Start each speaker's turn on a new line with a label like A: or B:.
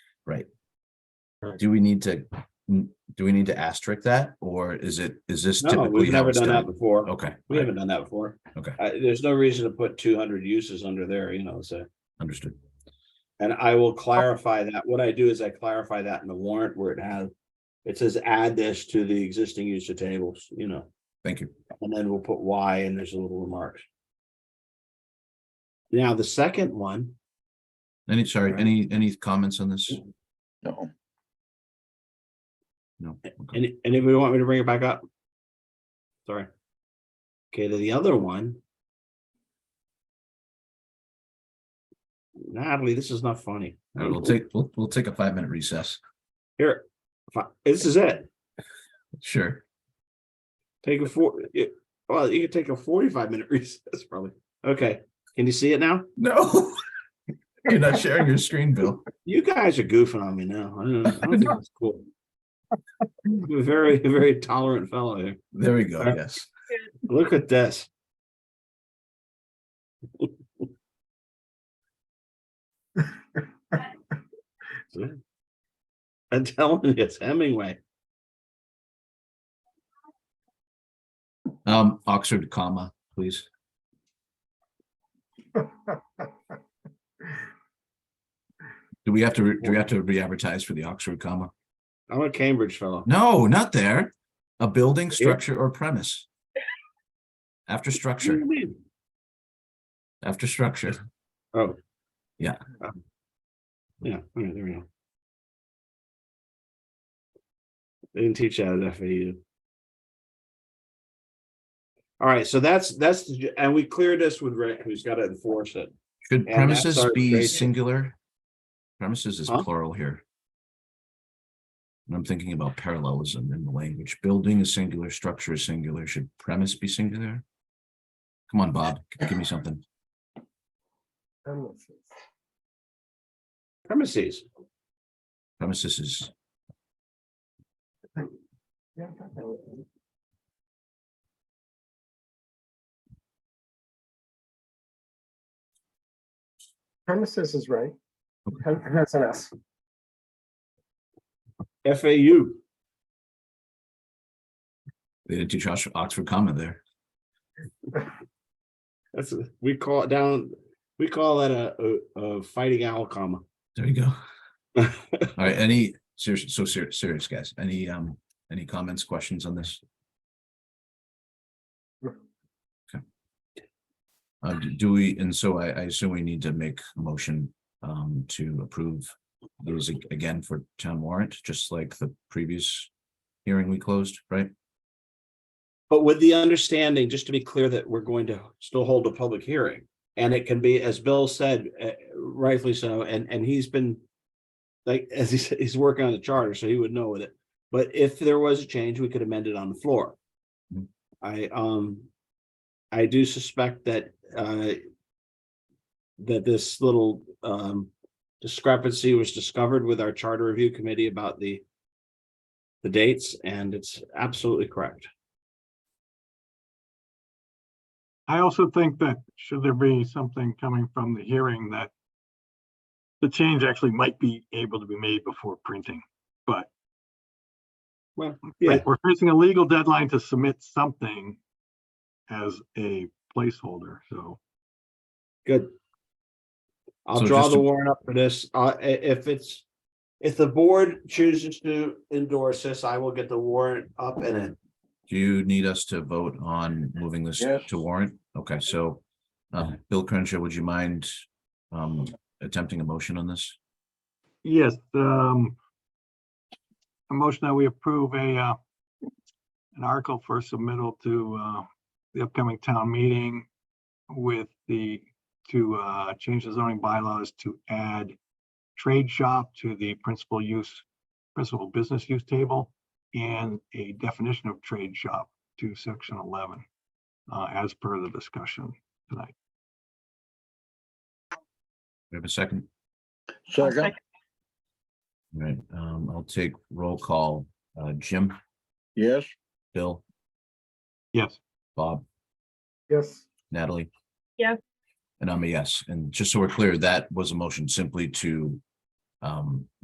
A: Right.
B: Correct.
A: Do we need to, do we need to asterisk that, or is it, is this
B: No,
A: typically
B: we've
A: how
B: never
A: it's
B: done that
A: done?
B: before.
A: Okay,
B: We haven't done that before.
A: Okay.
B: I there's no reason to put two hundred uses under there, you know, so.
A: understood.
B: And I will clarify that. What I do is I clarify that in the warrant where it has. It says add this to the existing use of tables, you know,
A: Thank you.
B: and then we'll put why and there's a little remarks. Now, the second one,
A: Any, sorry,
B: Alright.
A: any, any comments on this?
C: No,
A: No. Okay.
B: and anybody want me to bring it back up? Sorry. Okay, then the other one. Natalie, this is not funny.
A: All right, We'll take, we'll, we'll take a five minute recess.
B: Here, fi- this is it.
A: Sure.
B: Take a four, it- well, you could take a forty-five minute recess probably. Okay, can you see it now?
A: No. You're not sharing your screen, Bill.
B: You guys are goofing on me now. I don't know. I don't think that's cool. You're a Very, very tolerant fellow here.
A: There we go, yes.
B: Look at this. I'm telling you, it's Hemingway.
A: Um, Oxford comma, please. Do we have to, re- do we have to re-advertise for the Oxford comma?
B: I'm a Cambridge fellow.
A: No, not there. A building, structure, or premise. After
B: What do
A: structure,
B: you mean?
A: after structure.
B: Oh.
A: Yeah.
B: Um, Yeah, all right, there we go. They didn't teach that at FAU. All right, so that's, that's, the ju- and we cleared this with Rick, who's got to enforce it.
A: Should
B: that's
A: premises
B: our
A: be
B: trade-
A: singular? Premises is
B: Huh?
A: plural here. And I'm thinking about parallelism in the language. Building is singular, structure is singular. Should premise be singular? Come on, Bob, g- give me something.
B: Premises,
A: Premises is
D: Premises is right. Hem- That's an S.
B: FAU.
A: They didn't teach Oxford, Oxford comma there.
B: That's, a- we call it down, we call that a, a, a fighting owl comma.
A: There you go. All right, any serious, so serious, serious guys, any, um, any comments, questions on this? Okay. Uh, do- do we, and so I, I assume we need to make a motion, um, to approve those ag- again for town warrant, just like the previous hearing we closed, right?
B: But with the understanding, just to be clear, that we're going to still hold a public hearing. And it can be, as Bill said, eh, rightfully so, and, and he's been. Like, as he said, he's working on the charter, so he would know with it. But if there was a change, we could amend it on the floor.
A: Mhm.
B: I, um. I do suspect that, uh. That this little, um, discrepancy was discovered with our charter review committee about the. The dates, and it's absolutely correct.
E: I also think that should there be something coming from the hearing that the change actually might be able to be made before printing, but
B: Well, yeah.
E: like, we're facing a legal deadline to submit something as a placeholder, so.
B: Good. I'll
A: So
B: draw
A: just
B: the
A: to-
B: warrant up for this. Uh, i- if it's, if the board chooses to endorse this, I will get the warrant up and in.
A: Do you need us to vote on moving this
C: Yes.
A: to warrant? Okay, so, um, Bill Crenshaw, would you mind, um, attempting a motion on this?
E: Yes, um, a motion that we approve a, uh, an article for submittal to, uh, the upcoming town meeting with the, to, uh, change the zoning bylaws to add trade shop to the principal use, principal business use table and a definition of trade shop to section eleven, uh, as per the discussion tonight.
A: We have a second?
F: I'll
C: second,
F: second.
A: All Right, um, I'll take roll call, uh, Jim,
C: yes,
A: Bill,
E: Yes.
A: Bob,
D: Yes,
A: Natalie.
F: Yes.
A: And I'm a yes, and just so we're clear, that was a motion simply to, um,